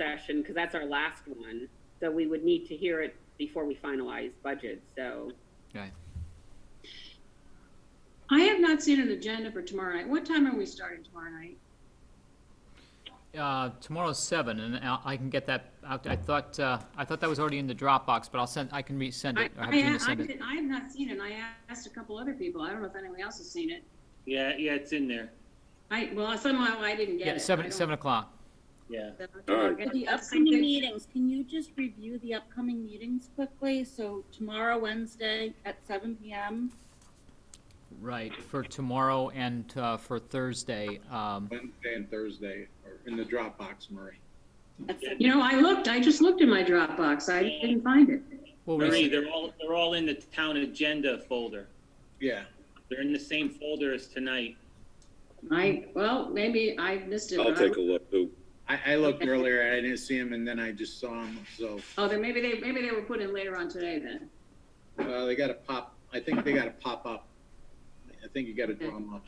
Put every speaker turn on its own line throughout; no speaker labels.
session, because that's our last one. So we would need to hear it before we finalize budget, so.
Right.
I have not seen an agenda for tomorrow night. What time are we starting tomorrow night?
Uh, tomorrow's seven, and I, I can get that out. I thought, uh, I thought that was already in the Dropbox, but I'll send, I can resend
I,
it. or have
I,
Gina
I,
send it.
did- I have not seen it. I asked a couple other people. I don't know if anyone else has seen it.
Yeah, yeah, it's in there.
I, well, somehow I didn't get it.
Yeah,
I
seven,
don't-
seven o'clock.
Yeah.
Alright.
At the upcoming meetings, can you just review the upcoming meetings quickly? So tomorrow, Wednesday at seven PM,
Right, for tomorrow and, uh, for Thursday. Um,
Wednesday and Thursday are in the Dropbox, Murray.
at seven
You know, I looked, I just looked in my Dropbox. I didn't find it.
we'll
Marie,
res-
they're all, they're all in the town agenda folder.
Yeah,
They're in the same folder as tonight.
I, well, maybe I missed it.
I'll
but I-
take a look too.
I, I looked earlier, I didn't see him, and then I just saw him, so,
Oh, then maybe they, maybe they were put in later on today then.
uh, they gotta pop, I think they gotta pop up. I think you gotta draw them up.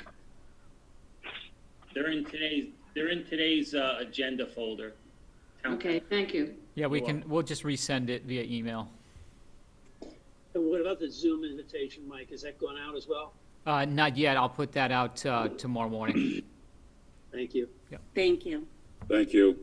They're in today's, they're in today's, uh, agenda folder. Town-
Okay, thank you.
yeah, we can, we'll just resend it via email.
And what about the Zoom invitation, Mike? Is that going out as well?
Uh, not yet. I'll put that out, uh, tomorrow morning.
Thank you.
Thank you.
Thank you.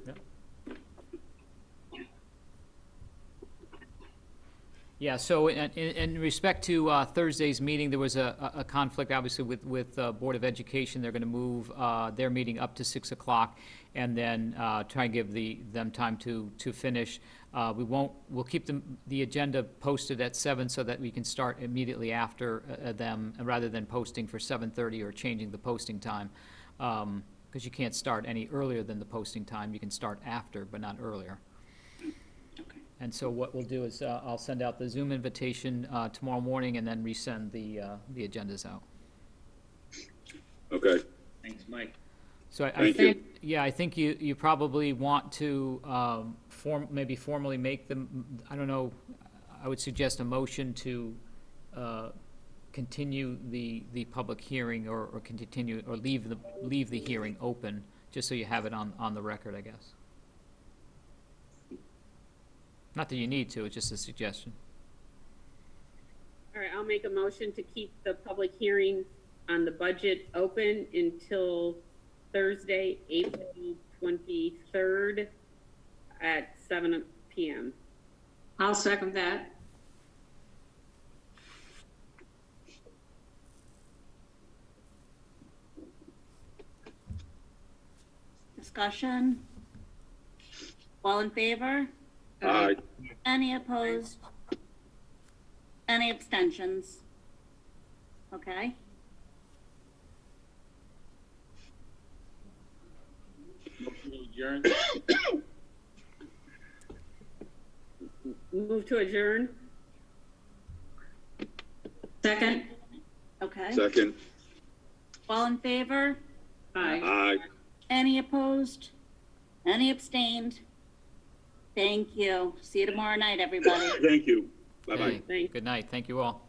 Yeah, so in, in, in respect to, uh, Thursday's meeting, there was a, a a conflict, obviously, with, with, uh, Board of Education. They're gonna move, uh, their meeting up to six o'clock and then, uh, try and give the, them time to, to finish. Uh, we won't, we'll keep the, the agenda posted at seven so that we can start immediately after, uh, uh, them, rather than posting for seven-thirty or changing the posting time. Um 'cause cause you can't start any earlier than the posting time. You can start after, but not earlier. And so what we'll do is, uh, I'll send out the Zoom invitation, uh, tomorrow morning and then resend the, uh, the agendas out.
Okay,
Thanks, Mike.
So I, I
Thank you.
think, yeah, I think you, you probably want to, um, form, maybe formally make them, I don't know, I would suggest a motion to, uh, continue the, the public hearing or, or continue, or leave the, leave the hearing open, just so you have it on, on the record, I guess. Not that you need to, it's just a suggestion.
All right, I'll make a motion to keep the public hearing on the budget open until Thursday, April twenty-third at seven PM.
I'll second that.
Discussion? All in favor?
aye,
Any opposed? Any abstentions? Okay.
Motion to adjourn.
Move to adjourn?
Second?
Okay.
second,
All in favor?
Aye.
aye.
Any opposed? Any abstained? Thank you. See you tomorrow night, everybody.
Thank you, bye-bye.
Hey,
Thank-
Good night, thank you all.